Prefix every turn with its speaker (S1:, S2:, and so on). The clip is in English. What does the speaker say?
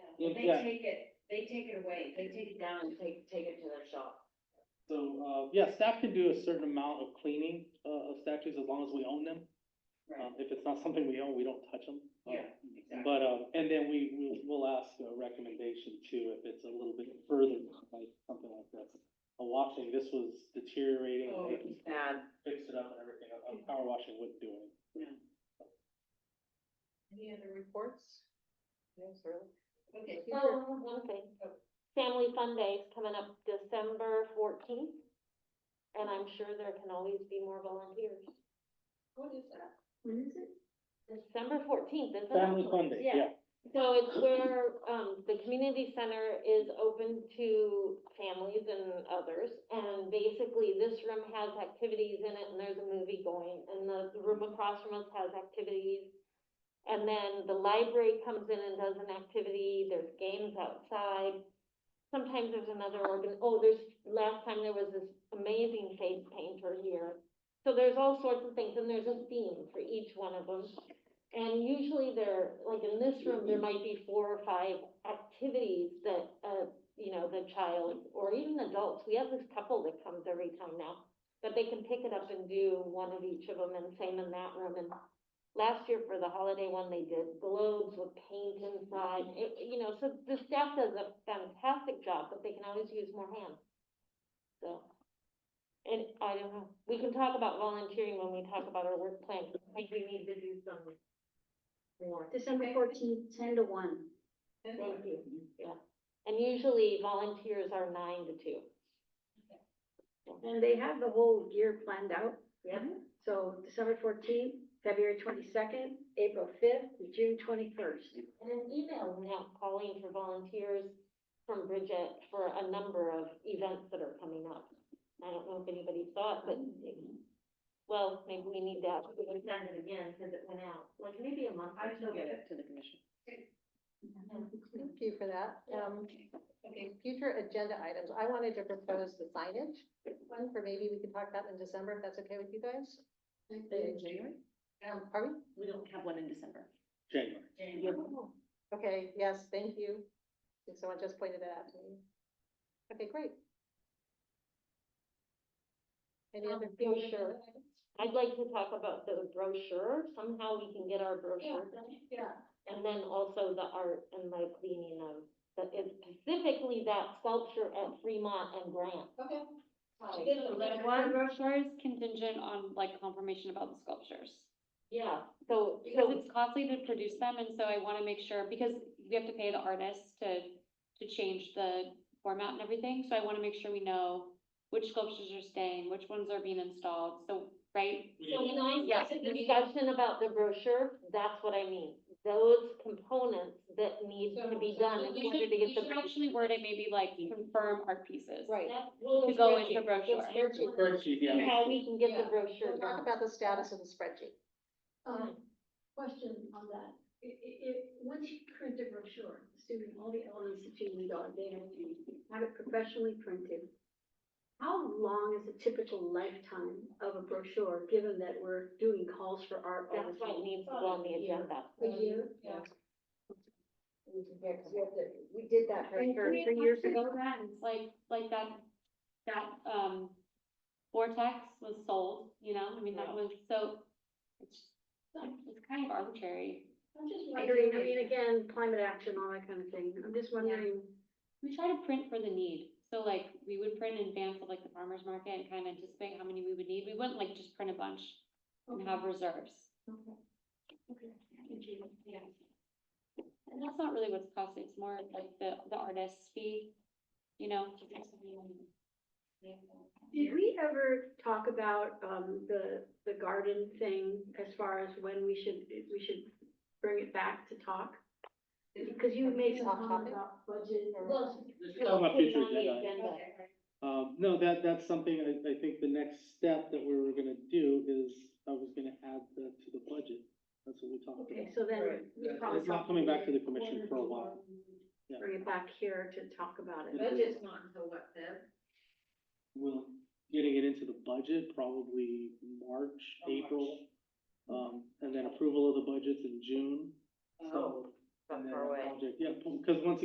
S1: If,
S2: They
S1: yeah,
S2: take it, they take it away, they take it down and take, take it to their shop.
S1: so, uh, yeah, staff can do a certain amount of cleaning, uh, of statues as long as we own them. Um, if it's not something we own, we don't touch them. Uh,
S2: Yeah, exactly.
S1: But, um, and then we, we, we'll ask a recommendation too, if it's a little bit further, like something like this. A washing, this was deteriorating,
S2: Oh,
S1: they
S2: it's bad.
S1: fixed it up and everything, a a power washing wouldn't do it.
S2: Any other reports? Yes, really? Okay.
S3: Oh, I have one thing. Family Fun Day is coming up December fourteenth, and I'm sure there can always be more volunteers.
S2: What is that?
S4: When is it?
S3: December fourteenth, isn't it?
S1: Family fun day,
S3: Yeah.
S1: yeah.
S3: So it's where, um, the community center is open to families and others, and basically this room has activities in it, and there's a movie going, and the the room across from us has activities. And then the library comes in and does an activity, there's games outside. Sometimes there's another organ, oh, there's, last time there was this amazing face painter here. So there's all sorts of things, and there's a theme for each one of them. And usually there, like in this room, there might be four or five activities that, uh, you know, the child or even adults, we have this couple that comes every time now. But they can pick it up and do one of each of them and same in that room. And last year for the holiday one, they did globes with paint inside. It, you know, so the staff does a fantastic job, but they can always use more hands. So. And I don't know, we can talk about volunteering when we talk about our work plan. I think we need to do some more.
S4: December
S2: Okay.
S4: fourteenth, ten to one.
S2: Thank you.
S3: And usually volunteers are nine to two.
S4: And they have the whole year planned out.
S2: Yeah.
S4: So December fourteenth, February twenty-second, April fifth, June twenty-first.
S3: And an email went out calling for volunteers from Bridget for a number of events that are coming up. I don't know if anybody saw it, but, well, maybe we need to, Mm-hmm. we can send it again because it went out, like maybe a month or
S2: I
S3: two
S2: will get
S3: ago.
S2: it to the commission.
S5: Thank you for that. Um,
S2: Okay.
S5: future agenda items, I wanted to propose the signage one for maybe we could talk about in December, if that's okay with you guys?
S2: January?
S5: Um, are we?
S2: We don't have one in December.
S1: January.
S2: January.
S5: Okay, yes, thank you. If Someone just pointed that out to me. Okay, great. Any
S3: Um,
S5: other
S3: brochure.
S5: future? items?
S3: I'd like to talk about the brochure, somehow we can get our brochure done.
S2: Yeah.
S3: And then also the art and my cleaning of, the it's specifically that sculpture at Fremont and Grant.
S2: Okay.
S6: Like, The brochure is contingent on like confirmation about the sculptures.
S3: Yeah, so,
S6: Because
S3: so,
S6: it's costly to produce them, and so I wanna make sure, because we have to pay the artist to, to change the format and everything, so I wanna make sure we know which sculptures are staying, which ones are being installed, so, right?
S1: We-
S3: so when I
S6: Yeah.
S3: said the discussion about the brochure, that's what I mean. Those components that need to be done in
S6: We
S3: order
S6: should,
S3: to get
S6: we
S3: the.
S6: should actually word it maybe like confirm art pieces.
S5: Right.
S3: To
S6: To go into the brochure.
S1: The spreadsheet, yeah.
S3: How we can get the
S5: Yeah.
S3: brochure
S5: We'll
S3: done.
S5: talk about the status of the spreadsheet.
S4: Um, question on that. I- i- i- once you print a brochure, assuming all the elements that you need are there, and you have it professionally printed, how long is the typical lifetime of a brochure, given that we're doing calls for art all the
S3: That's why it
S4: time?
S3: needs to go on the agenda.
S4: A year?
S2: Yeah.
S4: We did that- we did that for
S6: Like,
S4: for
S6: three
S4: three years ago.
S6: ago, that, it's like, like that, that, um, Vortex was sold, you know, I mean, that was, so, it's, it's kind of arbitrary.
S4: I'm just wondering, I mean, again, climate action, all that kind of thing. I'm just wondering,
S6: We try to print for the need, so like, we would print in advance of like the farmer's market and kind of anticipate how many we would need, we wouldn't like just print a bunch and
S4: um,
S6: have reserves. And that's not really what's costing, it's more like the, the artist's fee, you know?
S4: did we ever talk about, um, the, the garden thing as far as when we should, if we should bring it back to talk? Because you made some
S5: Off
S4: comment
S5: topic?
S4: about budget or.
S3: Well,
S1: This is on my future
S3: Put it on the
S1: agenda.
S3: agenda.
S1: Um, no, that, that's something I, I think the next step that we were gonna do is, I was gonna add that to the budget. That's what we talked
S4: Okay,
S1: about.
S4: so then.
S2: Right.
S4: we probably
S1: It's not
S4: talk-
S1: coming back to the commission for a while. Yeah.
S4: Bring it back here to talk about it.
S2: Budget's not until what, Feb?
S1: Well, getting it into the budget, probably March,
S2: Oh, March.
S1: April. Um, and then approval of the budgets in June.
S2: Oh,
S1: So, and
S2: not
S1: then
S2: far
S1: the
S2: away.
S1: project- Yeah, because once